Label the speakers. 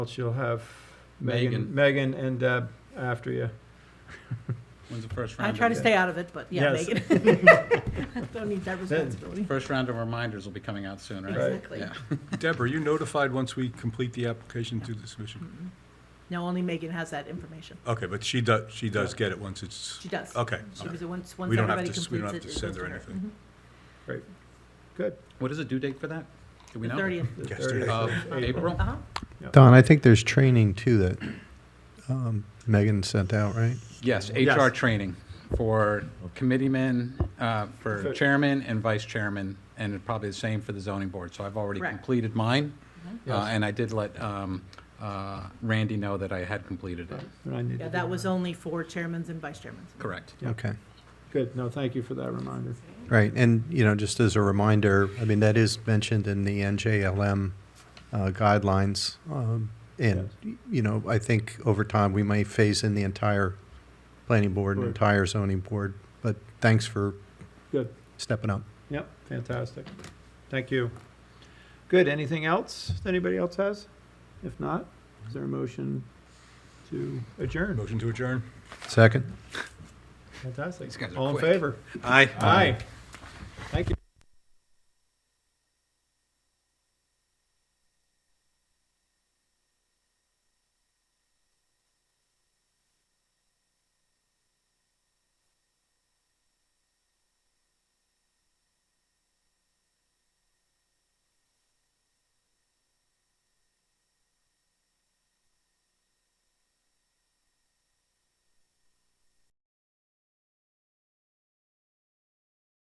Speaker 1: else you'll have
Speaker 2: Megan.
Speaker 1: Megan, Megan and Deb after you.
Speaker 2: When's the first
Speaker 3: I
Speaker 2: round?
Speaker 3: try to
Speaker 2: of-
Speaker 3: stay out of it, but yeah,
Speaker 1: Yes.
Speaker 3: make it. Don't need that responsibility.
Speaker 2: First round of reminders will be coming out soon, right?
Speaker 1: Right.
Speaker 3: Exactly.
Speaker 2: Yeah.
Speaker 4: Deborah, you notified once we complete the application through the submission?
Speaker 3: Mhm. No, only Megan has that information.
Speaker 4: Okay, but she does, she does get it once it's,
Speaker 3: She does.
Speaker 4: okay.
Speaker 3: She was, once, once
Speaker 4: We don't have
Speaker 3: everybody completes
Speaker 4: to-
Speaker 3: it.
Speaker 4: we don't have
Speaker 3: it
Speaker 4: to
Speaker 3: goes
Speaker 4: send her
Speaker 3: to
Speaker 4: anything.
Speaker 3: Mhm.
Speaker 2: What is the due date for that? Do we
Speaker 3: The
Speaker 2: know?
Speaker 3: thirtieth.
Speaker 1: the
Speaker 4: Yes,
Speaker 1: 30th
Speaker 2: Of
Speaker 1: of
Speaker 2: April?
Speaker 3: Uh-huh.
Speaker 5: Don, I think there's training too that um, Megan sent out, right?
Speaker 2: Yes,
Speaker 1: Yes.
Speaker 2: HR training for committeemen, uh, for
Speaker 1: For-
Speaker 2: chairman and vice chairman, and probably the same for the zoning board. So I've already
Speaker 3: Correct.
Speaker 2: completed mine, uh,
Speaker 1: Yes.
Speaker 2: and I did let um, uh, Randy know that I had completed it.
Speaker 1: And I need
Speaker 3: Yeah,
Speaker 1: to
Speaker 3: that
Speaker 1: do
Speaker 3: was only for chairmans and vice chairmans.
Speaker 2: Correct.
Speaker 5: Okay.
Speaker 1: Good, no, thank you for that reminder.
Speaker 5: Right, and, you know, just as a reminder, I mean, that is mentioned in the NJLM uh, guidelines. um, And, you know, I think over time, we may phase in the entire planning board, and
Speaker 1: Board.
Speaker 5: entire zoning board, but thanks for
Speaker 1: Good.
Speaker 5: stepping up.
Speaker 1: Yep, fantastic. Thank you. Good, anything else that anybody else has? If not, is there a motion to adjourn?
Speaker 4: Motion to adjourn?
Speaker 5: Second?
Speaker 1: Fantastic.
Speaker 2: These guys are
Speaker 1: All in
Speaker 2: quick.
Speaker 1: favor?
Speaker 2: Aye.
Speaker 1: Aye. Thank you.